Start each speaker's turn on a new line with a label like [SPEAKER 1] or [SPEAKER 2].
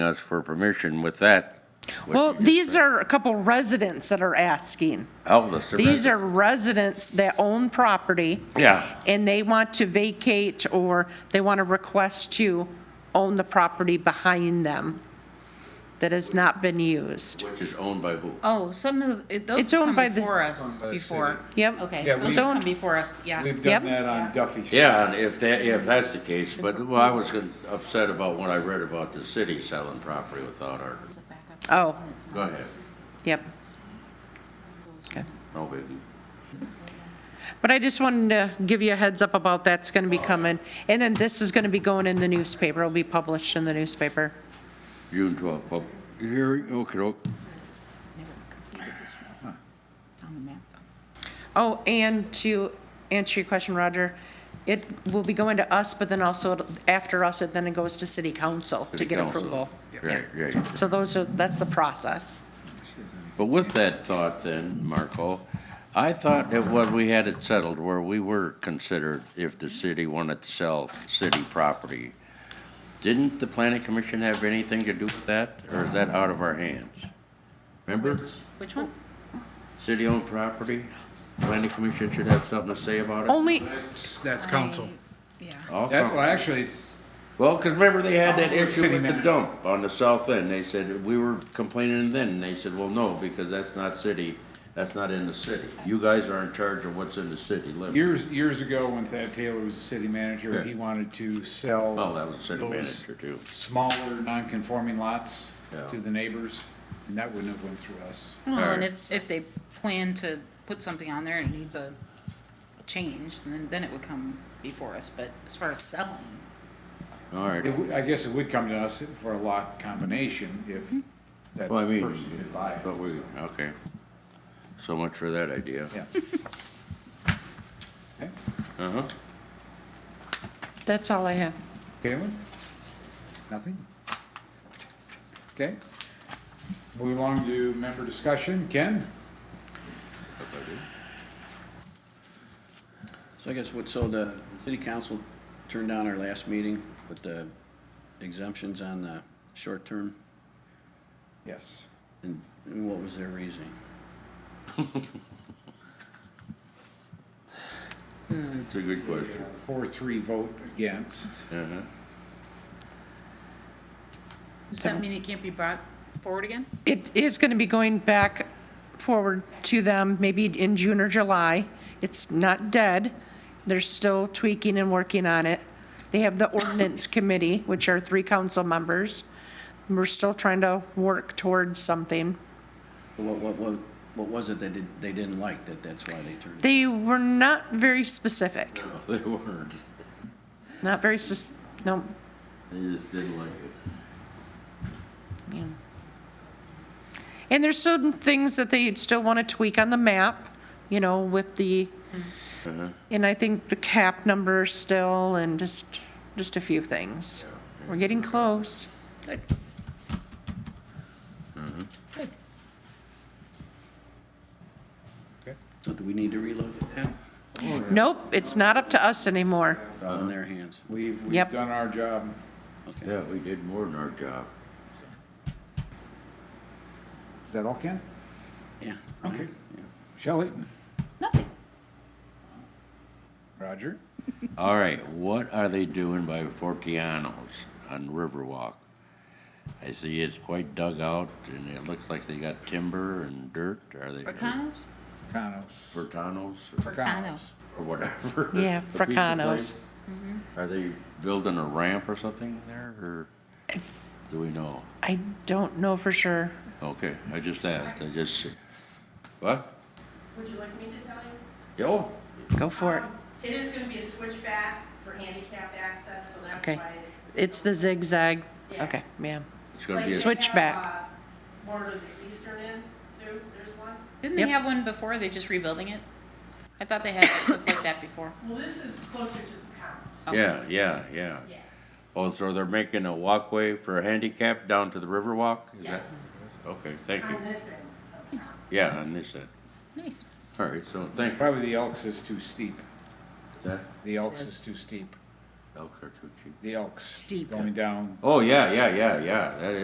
[SPEAKER 1] us for permission with that. what
[SPEAKER 2] Well,
[SPEAKER 1] you just
[SPEAKER 2] these
[SPEAKER 1] said.
[SPEAKER 2] are a couple residents that are asking.
[SPEAKER 1] Oh, the survey.
[SPEAKER 2] These are residents that own property.
[SPEAKER 1] Yeah.
[SPEAKER 2] And they want to vacate or they want to request to own the property behind them that has not been used.
[SPEAKER 1] Which is owned by who?
[SPEAKER 3] Oh, some of, it- those
[SPEAKER 2] It's
[SPEAKER 3] have
[SPEAKER 2] owned
[SPEAKER 3] come
[SPEAKER 2] by the-
[SPEAKER 3] before us
[SPEAKER 4] Owned by the
[SPEAKER 3] before.
[SPEAKER 2] Yep.
[SPEAKER 3] Okay,
[SPEAKER 4] Yeah,
[SPEAKER 3] those
[SPEAKER 4] we-
[SPEAKER 3] have come before us, yeah.
[SPEAKER 4] We've
[SPEAKER 2] Yep.
[SPEAKER 4] done that on Duffy Street.
[SPEAKER 1] Yeah, and if that, if that's the case, but, well, I was con- upset about what I read about the city selling property without our,
[SPEAKER 2] Oh,
[SPEAKER 1] go ahead,
[SPEAKER 2] yep. Okay.
[SPEAKER 1] no biggie.
[SPEAKER 2] But I just wanted to give you a heads up about that's going to be coming. And then this is going to be going in the newspaper. It'll be published in the newspaper.
[SPEAKER 1] June twelfth, pub, hearing, okay, okay.
[SPEAKER 2] Oh, and to answer your question, Roger, it will be going to us, but then also it'll- after us, it then it goes to city council to
[SPEAKER 1] City
[SPEAKER 2] get
[SPEAKER 1] council.
[SPEAKER 2] approval.
[SPEAKER 1] Right, right.
[SPEAKER 2] So those are, that's the process.
[SPEAKER 1] But with that thought then, Marco, I thought that what we had it settled where we were considered if the city wanted to sell city property. Didn't the planning commission have anything to do with that, or is that out of our hands? Remember,
[SPEAKER 3] Which one?
[SPEAKER 1] city-owned property, planning commission should have something to say about it?
[SPEAKER 2] Only,
[SPEAKER 5] That's council.
[SPEAKER 3] Yeah.
[SPEAKER 1] All
[SPEAKER 4] That, well,
[SPEAKER 1] com-
[SPEAKER 4] actually, it's,
[SPEAKER 1] Well, because remember they had that
[SPEAKER 4] Council or
[SPEAKER 1] issue
[SPEAKER 4] city
[SPEAKER 1] with the
[SPEAKER 4] manager?
[SPEAKER 1] dump on the south end, they said, we were complaining then, and they said, well, no, because that's not city, that's not in the city. You guys are in charge of what's in the city limits.
[SPEAKER 4] years, years ago, when Thad Taylor was the city manager,
[SPEAKER 1] Yeah.
[SPEAKER 4] he wanted to sell.
[SPEAKER 1] Oh, that was city
[SPEAKER 4] those
[SPEAKER 1] manager too.
[SPEAKER 4] Smaller, non-conforming lots
[SPEAKER 1] Yeah.
[SPEAKER 4] to the neighbors, and that wouldn't have went through us.
[SPEAKER 3] Well, and
[SPEAKER 1] Alright.
[SPEAKER 3] if, if they plan to put something on there and it needs a change, then, then it would come before us, but as far as selling,
[SPEAKER 1] All right,
[SPEAKER 4] It would, I guess it would come to us for a lot combination if that
[SPEAKER 1] well, I mean,
[SPEAKER 4] person could buy it.
[SPEAKER 1] but we, okay. So much for that idea.
[SPEAKER 4] Yeah. Okay.
[SPEAKER 1] Uh-huh.
[SPEAKER 2] that's all I have.
[SPEAKER 4] Caitlin? Nothing? Okay. Moving along to member discussion. Ken?
[SPEAKER 6] So I guess what, so the city council turned down our last meeting with the exemptions on the short term,
[SPEAKER 4] Yes.
[SPEAKER 6] and and what was their reasoning?
[SPEAKER 1] That's a good question.
[SPEAKER 4] Four, three vote against.
[SPEAKER 1] Uh-huh.
[SPEAKER 3] does that mean it can't be brought forward again?
[SPEAKER 2] It is going to be going back forward to them, maybe in June or July. It's not dead. They're still tweaking and working on it. They have the ordinance committee, which are three council members. We're still trying to work towards something.
[SPEAKER 6] What, what, what, what was it they did, they didn't like that that's why they turned?
[SPEAKER 2] They were not very specific,
[SPEAKER 1] They weren't,
[SPEAKER 2] not very, sus- no,
[SPEAKER 1] they just didn't like it.
[SPEAKER 2] Yeah. And there's some things that they still want to tweak on the map, you know, with the, and I think the cap number still, and just, just a few things. We're getting close.
[SPEAKER 3] Good.
[SPEAKER 6] So do we need to relook at that?
[SPEAKER 2] Nope, it's not up to us anymore.
[SPEAKER 6] It's all in their hands.
[SPEAKER 4] We've, we've
[SPEAKER 2] Yep.
[SPEAKER 4] done our job.
[SPEAKER 6] Okay.
[SPEAKER 1] Yeah, we did more than our job.
[SPEAKER 4] Is that all, Ken?
[SPEAKER 6] Yeah.
[SPEAKER 4] Okay.
[SPEAKER 6] Yeah.
[SPEAKER 4] Shelley?
[SPEAKER 3] Nothing.
[SPEAKER 4] Roger?
[SPEAKER 1] All right, what are they doing by Fortianos on Riverwalk? I see it's quite dug out, and it looks like they got timber and dirt, are they?
[SPEAKER 3] Fracano's?
[SPEAKER 4] Conos.
[SPEAKER 1] Fortanos, or-
[SPEAKER 3] Fracano.
[SPEAKER 1] or whatever.
[SPEAKER 2] Yeah,
[SPEAKER 1] The pizza
[SPEAKER 2] Fracano's.
[SPEAKER 1] place. Mm-hmm. Are they building a ramp or something there, or do we know?
[SPEAKER 2] I don't know for sure.
[SPEAKER 1] Okay, I just asked, I just, what?
[SPEAKER 7] Would you like me to tell you?
[SPEAKER 1] Yo,
[SPEAKER 2] Go for it.
[SPEAKER 7] Um, It is gonna be a switchback for handicap access, so that's
[SPEAKER 2] Okay.
[SPEAKER 7] why.
[SPEAKER 2] It's the zigzag.
[SPEAKER 7] Yeah.
[SPEAKER 2] Okay, ma'am.
[SPEAKER 1] it's gonna
[SPEAKER 7] Like
[SPEAKER 1] be,
[SPEAKER 7] they
[SPEAKER 1] a-
[SPEAKER 2] Switch-
[SPEAKER 7] have,
[SPEAKER 2] Switchback.
[SPEAKER 7] uh, More to the eastern end, too, there's one.
[SPEAKER 3] Didn't they
[SPEAKER 2] Yep.
[SPEAKER 3] have one before? Are they just rebuilding it? I thought they had access like that before.
[SPEAKER 7] Well, this is closer to the
[SPEAKER 1] yeah,
[SPEAKER 7] commons,
[SPEAKER 1] yeah, yeah.
[SPEAKER 7] Oh. yeah,
[SPEAKER 1] Oh, so they're making a walkway for handicap down to the Riverwalk? Is
[SPEAKER 7] yes,
[SPEAKER 1] that- Okay, thank you.
[SPEAKER 7] on this end.
[SPEAKER 3] Nice,
[SPEAKER 1] Yeah, on this end.
[SPEAKER 3] nice.
[SPEAKER 1] All right, so thank you.
[SPEAKER 4] Probably the Elks is too steep.
[SPEAKER 1] That-
[SPEAKER 4] The Elks is too steep.
[SPEAKER 1] elk are too cheap.
[SPEAKER 4] The Elks.
[SPEAKER 3] Steep.
[SPEAKER 4] Going down
[SPEAKER 1] Oh, yeah, yeah, yeah, yeah, that is.